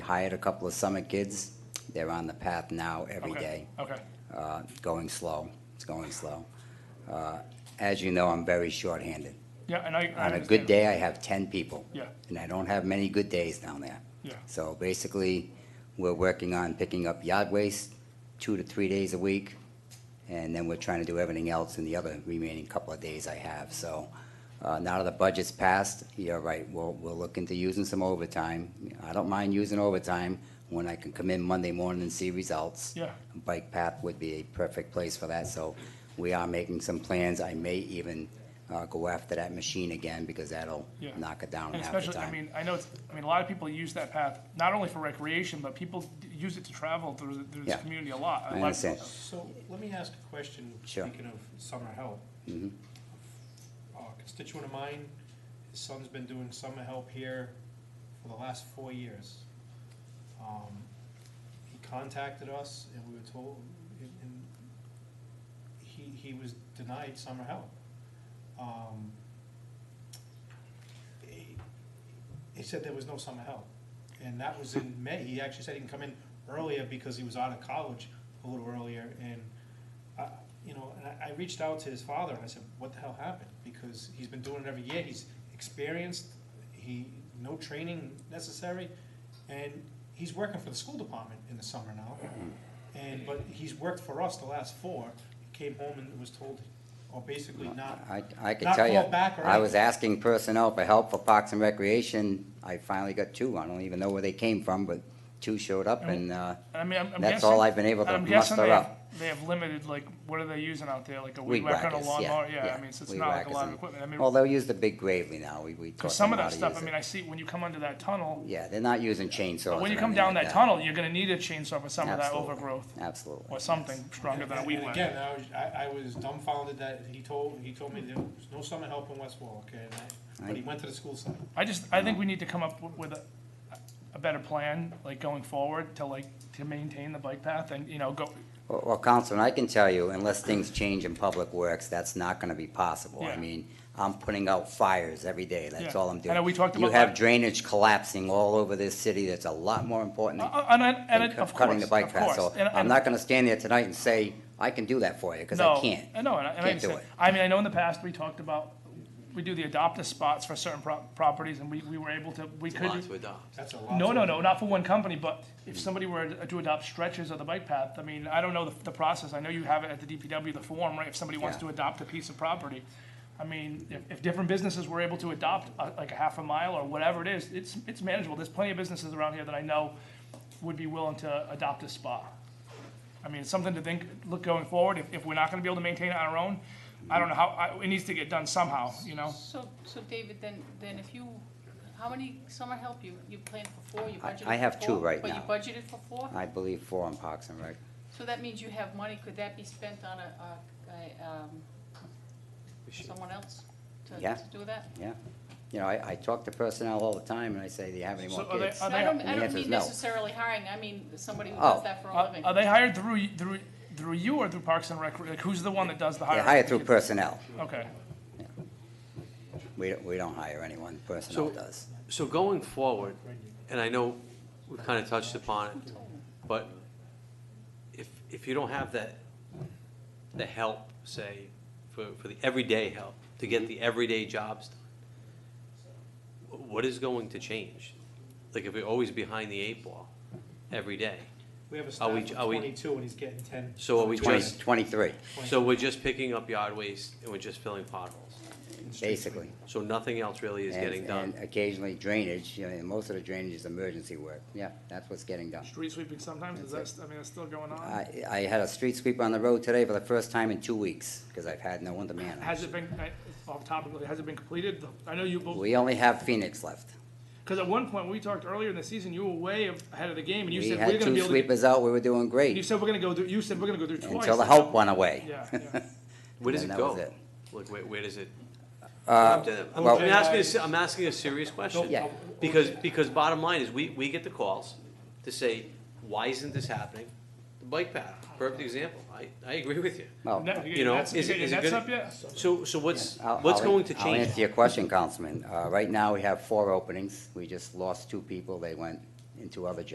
hired a couple of summer kids. They're on the path now every day. Okay, Okay, Uh, Going slow, it's going slow. Uh, As you know, I'm very shorthanded. yeah, and I, On I a understand. good day, I have ten people. Yeah. And I don't have many good days down there. Yeah. So basically, we're working on picking up yard waste two to three days a week. And then we're trying to do everything else in the other remaining couple of days I have. So uh, now that the budget's passed, you're right, we'll, we'll look into using some overtime. I don't mind using overtime when I can come in Monday morning and see results. Yeah. Bike path would be a perfect place for that, so we are making some plans. I may even uh, go after that machine again because that'll Yeah. knock it down And half the especially, I time. mean, I know, it's I mean, a lot of people use that path, not only for recreation, but people d- use it to travel through, the- through this Yeah. community a lot. I understand. So let me ask a question. Sure. Speaking of summer help. Uh, A constituent of mine, his son's been doing summer help here for the last four years. Um, He contacted us and we were told, and- and he, he was denied summer help. Um, He he said there was no summer help. And that was in May. He actually said he can come in earlier because he was out of college a little earlier. And, I- you know, and I, I reached out to his father and I said, what the hell happened? Because he's been doing it every year. He's experienced, he, no training necessary. And he's working for the school department in the summer now. And, but he's worked for us the last four. Came home and was told, or basically not, I, I could not tell you, called back or I was asking personnel for help for Parks and Recreation. I finally got two. I don't even know where they came from, but two showed up and, uh, And I mean, I'm, I'm That's guessing- all I've been able to I'm muster guessing they have- up. They have limited, like, what are they using out there, like a weed weed whacker and a whackers, yeah. lawnmower? Yeah, I mean, so it's weed not like a whackers lot of and- equipment, I mean. Well, they'll use the big gravely now. We, we taught Because some them of how that to stuff, use I mean, it. I see when you come under that tunnel, Yeah, they're not using chainsaws when you or come anything down like that tunnel, you're gonna need a chainsaw for some of that Absolutely. overgrowth Absolutely. or something stronger than a weed And whacker. again, I was, I, I was dumbfounded that he told, he told me there was no summer help in West Warwick, and I, but he went to the school site. I just, I think we need to come up wi- with a, a better plan, like going forward to like, to maintain the bike path and, you know, go, Well- Well, Councilman, I can tell you, unless things change in Public Works, that's not gonna be possible. I Yeah. mean, I'm putting out fires every day, that's Yeah. all I'm I doing. know we talked You about have that. drainage collapsing all over this city, that's a lot more important uh, than uh, and, I- and than it- cu- of cutting course, the of bike path. course. So And- I'm and- not gonna stand there tonight and say, I can do that for you, because I no, can't. I know, and I, and I Can't do understand. it. I mean, I know in the past, we talked about, we do the adopt-a spots for certain pro- properties and we, we were able to, we could. lot to adopt. That's a lot. No, to- no, no, not for one company, but if somebody were to adopt stretches of the bike path, I mean, I don't know the, the process, I know you have it at the DPW, the form, right, if somebody wants Yeah. to adopt a piece of property. I mean, if, if different businesses were able to adopt a- like a half a mile or whatever it is, it's, it's manageable, there's plenty of businesses around here that I know would be willing to adopt a spa. I mean, it's something to think, look going forward, if, if we're not gonna be able to maintain it on our own, I don't know how, I, it needs to get done somehow, you know? So, so David, then, then if you, how many summer help you, you planned for four, you I- budgeted for four? I have two right now. Uh, But you budgeted for four? I believe four on Parks and Rec. So that means you have money, could that be spent on a, a, a, um, someone else to, Yeah. to do that? Yeah. You know, I, I talk to personnel all the time, and I say, do you have any more So are they- kids? are So I don't, The I answer don't is mean no. necessarily hiring, I mean somebody who Oh. does that for a Uh, Are living. are they hired through, y- through, through you or through Parks and Rec? Like, who's the one that does the They hiring? hire through personnel. Okay, We, don't- we don't hire anyone, personnel So- does. So going forward, and I know we've kind of touched upon it, but if, if you don't have that, the help, say, for, for the everyday help, to get the everyday jobs done, wh- what is going to change? Like, if we're always behind the eight ball every day, We have a Are we- staff are of we- twenty-two and he's getting ten. so are we Twenty- just, Twenty-three, so we're just picking up yard waste and we're just filling potholes? basically. So nothing else really is And- getting done? And occasionally drainage, you know, and most of the drainage is emergency work. Yeah, that's what's getting done. street sweeping sometimes, is that, I mean, it's still going on? I, I had a street sweep on the road today for the first time in two weeks, because I've had no one to man it. Has it been, I- off topic, has it been completed? I know you, We only have Phoenix left. because at one point, we talked earlier in the season, you were way ahead of the game, and you We said, we're had gonna be two able to. get-" sweepers out, we were doing You great, said, we're gonna go, through- you said, we're gonna go through twice. until the help went away. Yeah, yeah. Where does And it that was go? it. Uh, Like, where, where does it? I'm I'm well- asking, a se- I'm asking a serious question. Yeah. Because, because bottom line is, we, we get the calls to say, why isn't this happening? The bike path, perfect example. I, I agree with you. Well, Net- You know, that's- is it- your is it net's good- up yet? So, so what's, I'll- what's I'll- going to I'll change? answer your question, Councilman. Uh, right now, we have four openings. We just lost two people. They went into other jobs.